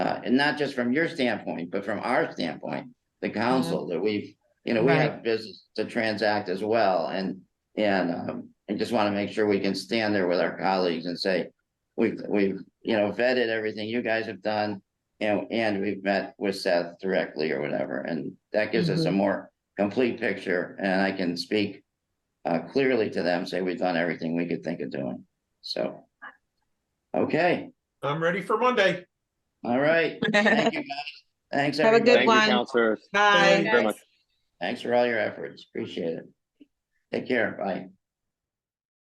not, uh, and not just from your standpoint, but from our standpoint, the council that we've, you know, we Right. have business to transact as well and, and, um, and just want to make sure we can stand there with our colleagues and say, we've, we've, you know, vetted everything you guys have done and, and we've met with Seth directly or whatever, and that gives us a more complete picture and I can speak uh, clearly to them, say we've done everything we could think of doing, so. Okay, I'm ready for Monday. all right. Thank you, guys. Thanks, Have a good Thank everybody. you, one. counselors. Bye. Thank you very much. Thanks for all your efforts. Appreciate it. Take care. Bye.